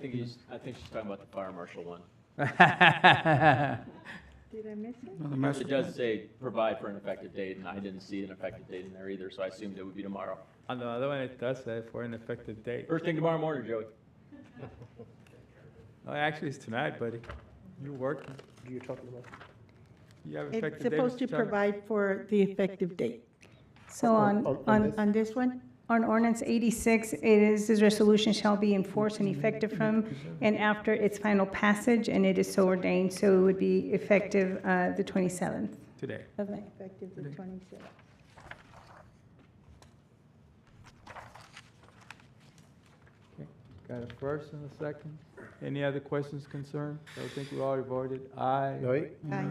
think he's, I think she's talking about the fire marshal one. Did I miss it? Another mess. It does say provide for an effective date, and I didn't see an effective date in there either, so I assumed it would be tomorrow. On the other one, it does say for an effective date. First thing tomorrow morning, Joey. Oh, actually, it's tonight, buddy. You working. You're talking about. You have It's effective date. supposed Mr. to Chandler. provide for the effective date. So on, on- on on, this? On this one, on ordinance 86, it is, this resolution shall be enforced and effective from and after its final passage, and it is so ordained, so it would be effective uh, the 27th Today. of May. effective the 26th. Got a first and a second. Any other questions, concern? I think we already voted aye. Aye. Aye.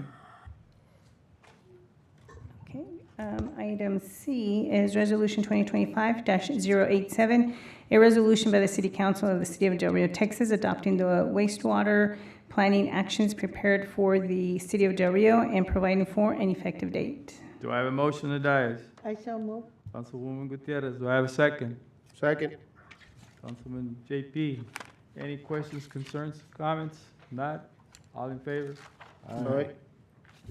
Okay, um, item C is Resolution 2025-087, a resolution by the City Council of the City of Del Rio, Texas, adopting the wastewater planning actions prepared for the City of Del Rio and providing for an effective date. Do I have a motion to dies? I shall move. Councilwoman Gutierrez, do I have a second? Second. Councilman JP, any questions, concerns, comments? Not? All in favor? Aye.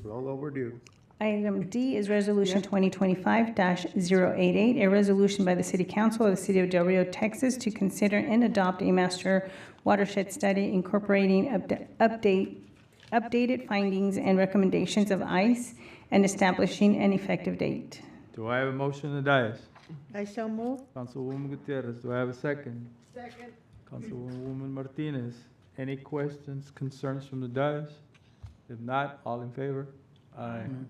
Long overdue. Item D is Resolution 2025-088, a resolution by the City Council of the City of Del Rio, Texas, to consider and adopt a master watershed study incorporating upda- update, updated findings and recommendations of ICE and establishing an effective date. Do I have a motion to dies? I shall move. Councilwoman Gutierrez, do I have a second? Second. Councilwoman Martinez, any questions, concerns from the dais? If not, all in favor? Mm-hmm. Aye.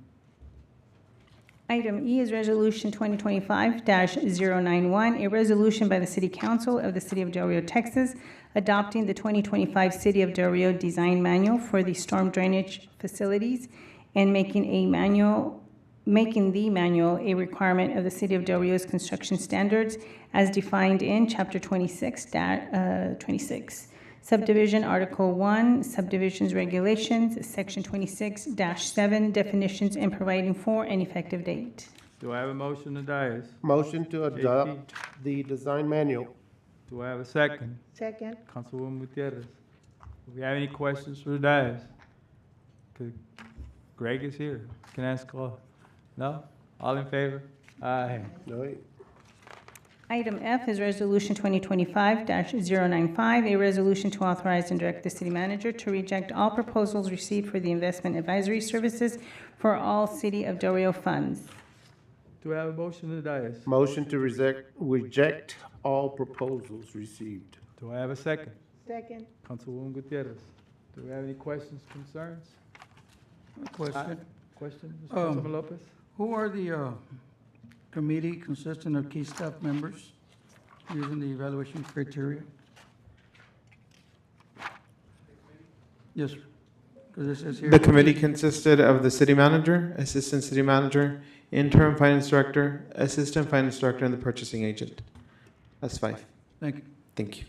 Item E is Resolution 2025-091, a resolution by the City Council of the City of Del Rio, Texas, adopting the 2025 City of Del Rio Design Manual for the storm drainage facilities and making a manual, making the manual a requirement of the City of Del Rio's construction standards as defined in Chapter 26, da- uh, 26, Subdivision Article 1, Subdivisions Regulations, Section 26-7, Definitions and Providing for an Effective Date. Do I have a motion to dais? Motion to adopt the design manual. Do I have a second? Second. Councilwoman Gutierrez, do we have any questions for the dais? Could- Greg is here, can ask all. No? All in favor? Aye. Aye. Item F is Resolution 2025-095, a resolution to authorize and direct the city manager to reject all proposals received for the investment advisory services for all City of Del Rio funds. Do I have a motion to dais? Motion to reject, reject all proposals received. Do I have a second? Second. Councilwoman Gutierrez, do we have any questions, concerns? Question, Question, Mr. Um, Councilman Lopez? who are the, uh, committee consisting of key staff members using the evaluation criteria? Yes, sir. Because it says here. The committee consisted of the city manager, assistant city manager, interim finance director, assistant finance director, and the purchasing agent. That's five. Thank you. Thank you.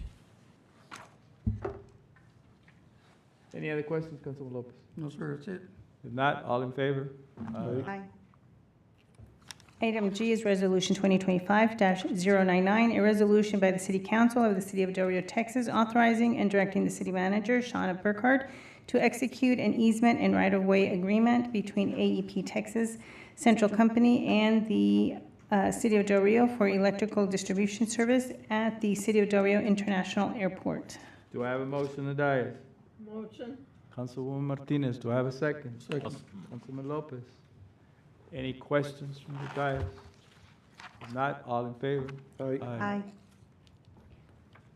Any other questions, Councilman Lopez? No, sir, that's it. If not, all in favor? Aye. Aye. Item G is Resolution 2025-099, a resolution by the City Council of the City of Del Rio, Texas, authorizing and directing the city manager, Shawna Burkhardt, to execute an easement and right-of-way agreement between AEP Texas Central Company and the uh, City of Del Rio for electrical distribution service at the City of Del Rio International Airport. Do I have a motion to dais? Motion. Councilwoman Martinez, do I have a second? Second. Councilman Lopez? Any questions from the dais? If not, all in favor? Aye. Aye.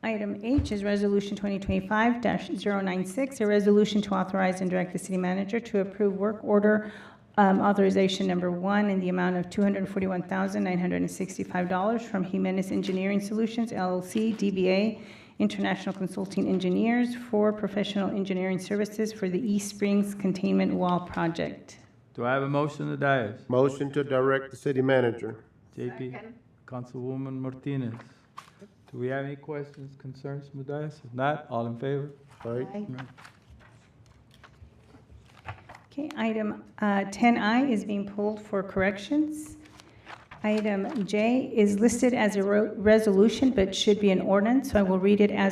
Item H is Resolution 2025-096, a resolution to authorize and direct the city manager to approve work order um, authorization number one in the amount of $241,965 from Jimenez Engineering Solutions LLC, DBA International Consulting Engineers for professional engineering services for the East Springs Containment Wall Project. Do I have a motion to dais? Motion to direct the city manager. JP? Councilwoman Martinez? Do we have any questions, concerns from the dais? If not, all in favor? Aye. Okay, item uh, 10I is being pulled for corrections. Item J is listed as a ro- resolution, but should be an ordinance, so I will read it as